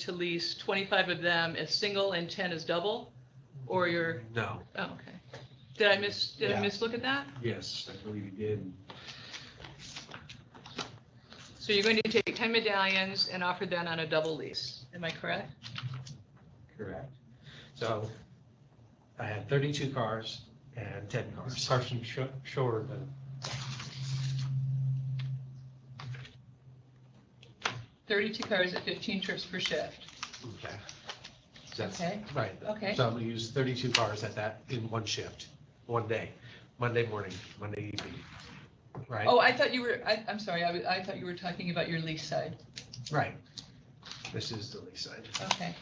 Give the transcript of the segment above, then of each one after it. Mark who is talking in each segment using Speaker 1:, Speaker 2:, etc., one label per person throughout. Speaker 1: to lease 25 of them as single and 10 as double? Or you're,
Speaker 2: No,
Speaker 1: oh, okay. Did I miss, did I
Speaker 2: Yeah.
Speaker 1: mislook at that?
Speaker 2: yes, I believe you did.
Speaker 1: So you're going to take 10 medallions and offer them on a double lease. Am I correct?
Speaker 2: Correct. So I had thirty-two cars and ten
Speaker 3: This
Speaker 2: cars.
Speaker 3: person sh- shorter than
Speaker 1: Thirty-two cars at fifteen trips per shift.
Speaker 2: Okay. That's
Speaker 1: Okay.
Speaker 2: right.
Speaker 1: Okay.
Speaker 2: So I'm gonna use thirty-two cars at that in one shift, one day, Monday morning, Monday evening. Right?
Speaker 1: Oh, I thought you were, I, I'm sorry, I, wa- I thought you were talking about your lease side.
Speaker 2: Right. This is the lease side,
Speaker 1: Okay,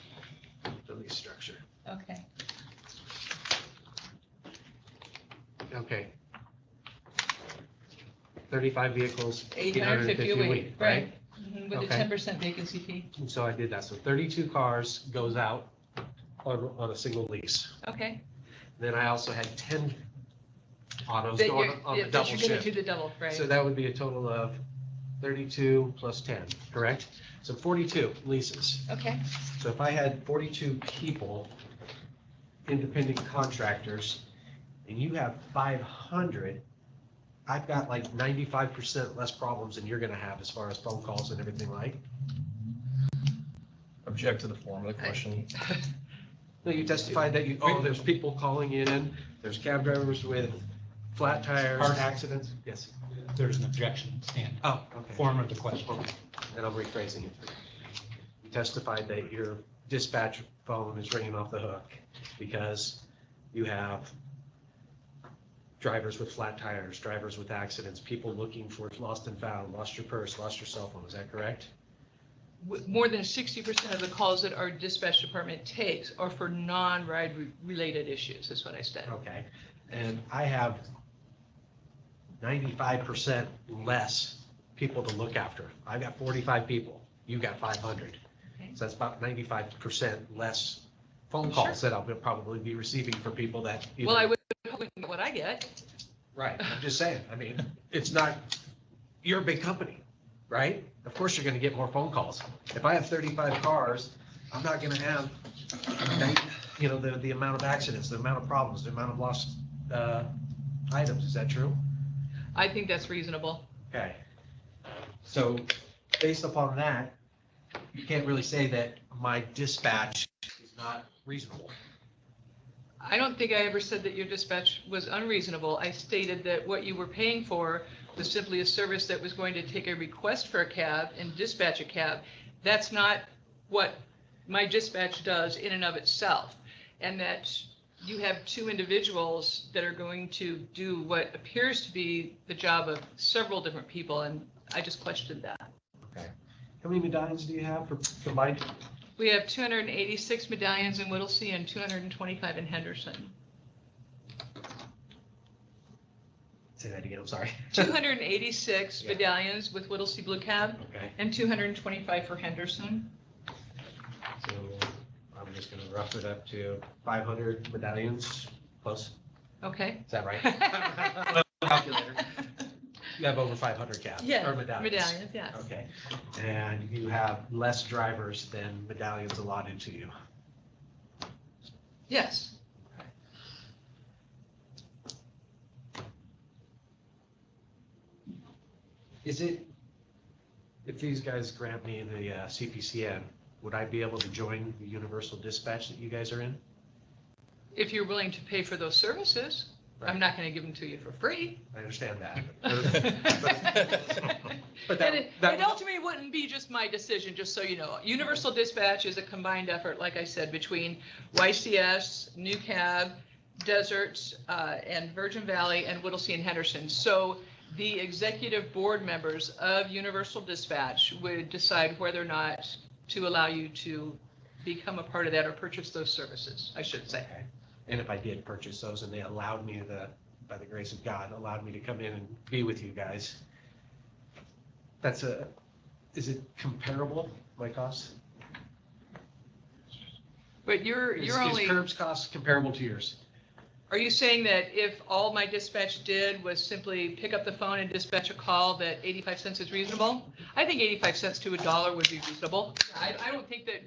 Speaker 2: the lease structure.
Speaker 1: okay.
Speaker 2: Okay. Thirty-five vehicles, eight hundred and
Speaker 1: 850
Speaker 2: fifty
Speaker 1: a
Speaker 2: a
Speaker 1: week,
Speaker 2: week, right?
Speaker 1: Mhm, With a
Speaker 2: Okay.
Speaker 1: ten percent vacancy fee.
Speaker 2: And so I did that. So thirty-two cars goes out on, on a single lease.
Speaker 1: Okay.
Speaker 2: Then I also had ten autos
Speaker 1: That you're,
Speaker 2: going on the
Speaker 1: that
Speaker 2: double
Speaker 1: you're gonna do
Speaker 2: shift.
Speaker 1: the double, right?
Speaker 2: So that would be a total of thirty-two plus ten, correct? So forty-two leases.
Speaker 1: Okay,
Speaker 2: So if I had forty-two people, independent contractors, and you have five hundred, I've got like ninety-five percent less problems than you're gonna have as far as phone calls and everything like.
Speaker 4: Object to the form of the question.
Speaker 2: No, you testified that you, oh, there's people calling in, there's cab drivers with flat tires,
Speaker 3: Pardon?
Speaker 2: accidents. Yes.
Speaker 3: There's an objection stand,
Speaker 2: Oh, okay.
Speaker 3: form of the question.
Speaker 2: Then I'm rephrasing it. You testified that your dispatch phone is ringing off the hook because you have drivers with flat tires, drivers with accidents, people looking for lost and found, lost your purse, lost your cell phone. Is that correct?
Speaker 1: W- more than sixty percent of the calls that our dispatch department takes are for non-ride re- related issues, is what I said.
Speaker 2: Okay, and I have ninety-five percent less people to look after. I've got forty-five people, you got five hundred.
Speaker 1: Okay. Oh,
Speaker 2: So that's about ninety-five percent less phone calls that I'll be- probably be receiving from people that. either-
Speaker 1: Well, I would, hope we can get what I get,
Speaker 2: Right, I'm just saying, I mean, it's not, you're a big company, right? Of course you're gonna get more phone calls. If I have thirty-five cars, I'm not gonna have, you know, the, the amount of accidents, the amount of problems, the amount of lost, uh, items, is that true?
Speaker 1: I think that's reasonable.
Speaker 2: Okay. So based upon that, you can't really say that my dispatch is not reasonable.
Speaker 1: I don't think I ever said that your dispatch was unreasonable. I stated that what you were paying for was simply a service that was going to take a request for a cab and dispatch a cab. That's not what my dispatch does in and of itself. And that you have two individuals that are going to do what appears to be the job of several different people, and I just questioned that.
Speaker 2: How many medallions do you have for combined?
Speaker 1: We have 286 medallions in Whittlesey and 225 in Henderson.
Speaker 2: Say that again, I'm sorry.
Speaker 1: 286
Speaker 2: Yeah.
Speaker 1: medallions with Whittlesey Blue Cab.
Speaker 2: Okay,
Speaker 1: And 225 for Henderson.
Speaker 2: so uh, I'm just gonna rough it up to five hundred medallions plus,
Speaker 1: Okay.
Speaker 2: is that right? Calculator. You have over five hundred caps
Speaker 1: Yeah,
Speaker 2: or medallions.
Speaker 1: Medallions, yes.
Speaker 2: Okay, and you have less drivers than medallions allotted to you.
Speaker 1: Yes.
Speaker 2: Is it, if these guys grant me the uh, CPCN, would I be able to join the universal dispatch that you guys are in?
Speaker 1: If you're willing to pay for those services, I'm not going to give them to you for free.
Speaker 2: I understand that.
Speaker 1: And
Speaker 2: But that,
Speaker 1: it
Speaker 2: that,
Speaker 1: it ultimately wouldn't be just my decision, just so you know. Universal Dispatch is a combined effort, like I said, between YCS, New Cab, Desert, uh, and Virgin Valley, and Whittlesey and Henderson. So the executive board members of Universal Dispatch would decide whether or not to allow you to become a part of that or purchase those services, I should say.
Speaker 2: okay. and if I did purchase those and they allowed me the, by the grace of God, allowed me to come in and be with you guys, that's a, is it comparable, my cost?
Speaker 1: But you're,
Speaker 2: Is-
Speaker 1: you're only.
Speaker 2: Is Curb's cost comparable to yours?
Speaker 1: Are you saying that if all my dispatch did was simply pick up the phone and dispatch a call, that 85 cents is reasonable? I think 85 cents to a dollar would be reasonable. I, I don't think that